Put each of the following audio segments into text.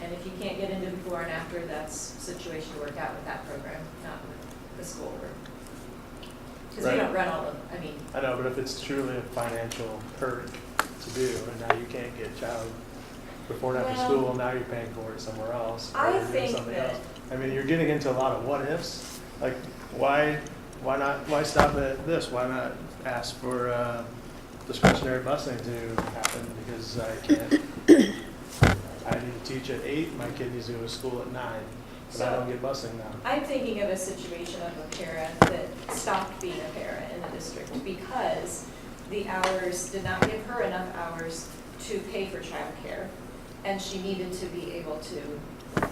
And if you can't get into before and after, that's a situation to work out with that program, not with the school. Because we Right. don't run all of, I mean, I know, but if it's truly a financial perk to do, and now you can't get child before and after Well- school, now you're paying for it somewhere else. or I you're doing think something that- else. I mean, you're getting into a lot of what ifs, like, why, why not, why stop at this, why not ask for, uh, discretionary busing to happen, because I can't, I need to teach at eight, my kid needs to go to school at nine, but I So- don't get busing now. I'm thinking of a situation of a parent that stopped being a parent in the district because the hours, did not give her enough hours to pay for childcare. And she needed to be able to um,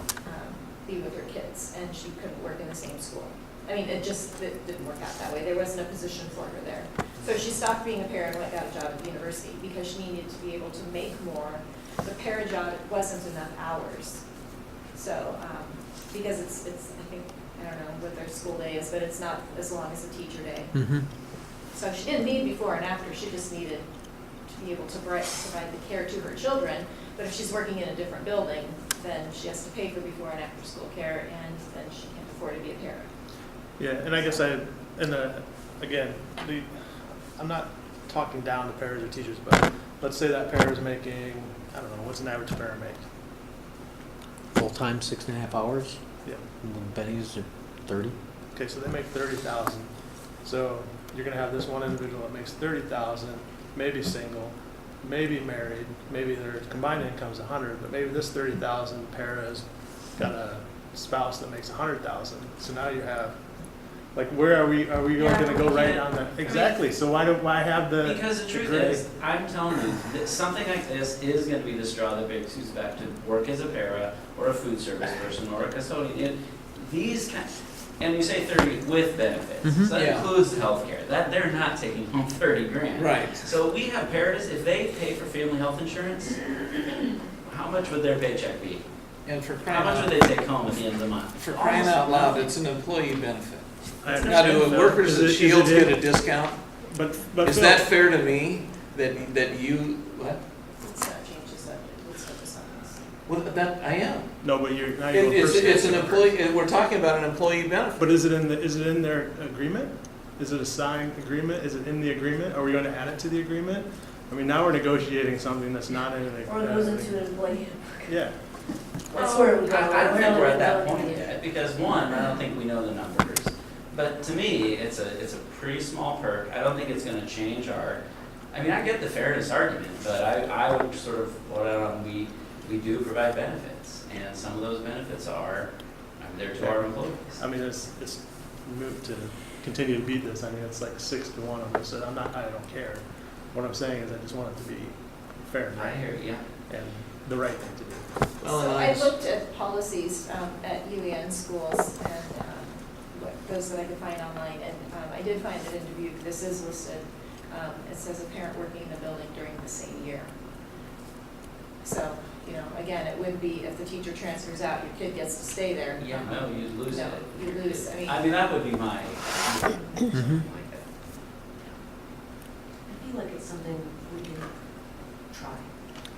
be with her kids, and she couldn't work in the same school. I mean, it just, it didn't work out that way. There wasn't a position for her there. So she stopped being a parent, and went got a job at the university because she needed to be able to make more. The parent job wasn't enough hours. So, um, because it's, it's, I think, I don't know what their school day is, but it's not as long as a teacher day. Hmm. So she didn't need before and after, she just needed to be able to bri- provide the care to her children. But if she's working in a different building, then she has to pay for before and after school care, and then she can't afford to be a parent. Yeah, and I guess I, and uh, again, the, I'm not talking down to parents or teachers, but let's say that parent is making, I don't know, what's an average parent make? Full-time, six and a half hours, Yeah, and then Benny's are thirty. okay, so they make thirty thousand. So you're gonna have this one individual that makes thirty thousand, maybe single, maybe married, maybe their combined income's a hundred, but maybe this thirty thousand para's got a spouse that makes a hundred thousand. So now you have, like, where are we, are we Yeah, gonna go we right can't- down the, exactly, so why do, why have the? Because the truth gray. is, I'm telling you, that something like this is gonna be the straw that breaks who's back to work as a para, or a food service person, or a custodian. It- These kind, and you say thirty with benefits, Mhm. so that Yeah. includes the healthcare, that, they're not taking home thirty grand. Right. So we have paras, if they pay for family health insurance, how much would their paycheck be? And for How crying much would out, they take home at the end of the month? for crying out loud, it's an employee benefit. I Now, understand. do Phil. workers Is it- at is Shields it- get a discount? But, but Is Phil, that fair to me, that, that you, what? Let's not change the subject, let's focus on this. Well, that, I am. no, but you're, now you're. It- It's, it's an employee, and we're talking about an employee benefit. But is it in the, is it in their agreement? Is it a signed agreement? Is it in the agreement? Are we gonna add it to the agreement? I mean, now we're negotiating something that's not in the. Or goes into an employee Yeah, That's where we go. I I don't We're think not we're at that gonna point do yet, because one, I don't think we know the numbers. But to me, it's a, it's a pretty small perk, I don't think it's gonna change our, I mean, I get the fairness argument, but I, I would sort of, well, um, we, we do provide benefits, and some of those benefits are, I'm there to our employees. I mean, it's, it's moot to continue to beat this. I mean, it's like six to one on this, and I'm not, I don't care. What I'm saying is I just want it to be fair and I right, hear, you, yeah. and the right thing to do. Well, So Oh, and I I- looked at policies um, at UAN schools and um, what- those that I could find online, and um, I did find that in Dubuque, this is listed. um, It says a parent working in the building during the same year. So, you know, again, it would be if the teacher transfers out, your kid gets to stay there. Um, Yeah, no, you lose No, it. you lose, I mean- I mean, that would be my, Mhm. I feel like it's something we can try.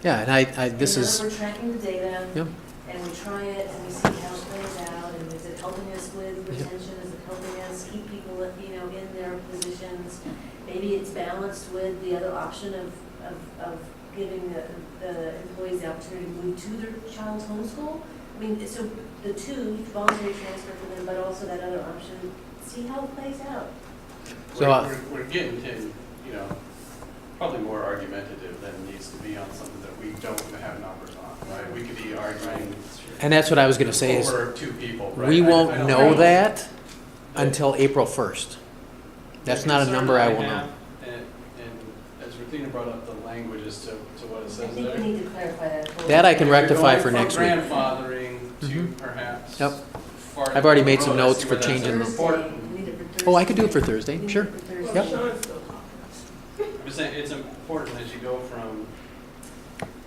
Yeah, and I, I, this And now that is, We're tracking the data. Yep. And we try it and we see how it plays out and is it helping us with Yep. retention? Is it helping us keep people, you know, in their positions? Maybe it's balanced with the other option of, of, of giving the, the employees the opportunity to move to their child's homeschool. I mean, so the two, voluntary transfer for them, but also that other option, see how it plays out. So, We're, uh, we're- we're getting to, you know, probably more argumentative than needs to be on something that we don't have numbers on, right? We could be arguing and that's what I was gonna say is, over two people, right? we I- I won't don't know that until April first. That's The not a concern number I will have, know. And, and as Regina brought up, the language as to, to what it I says think there. we need to clarify that. a little That I bit. can If you're rectify going for from next week. Grandfathering to Mhm. perhaps. Yep. farther I've already down the made some road, I notes see for where that's changing the- Thursday, important. we need it for Thursday. Oh, I could do it for We need Thursday, it sure. for Thursday. Yep. I'm just saying, it's important as you go from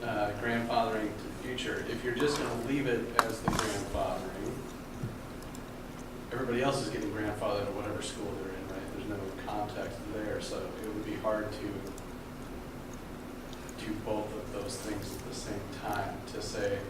uh, grandfathering to future, if you're just gonna leave it as the grandfathering, everybody else is getting grandfathered at whatever school they're in, right? There's no context there, so it would be hard to do both of those things at the same time, to say,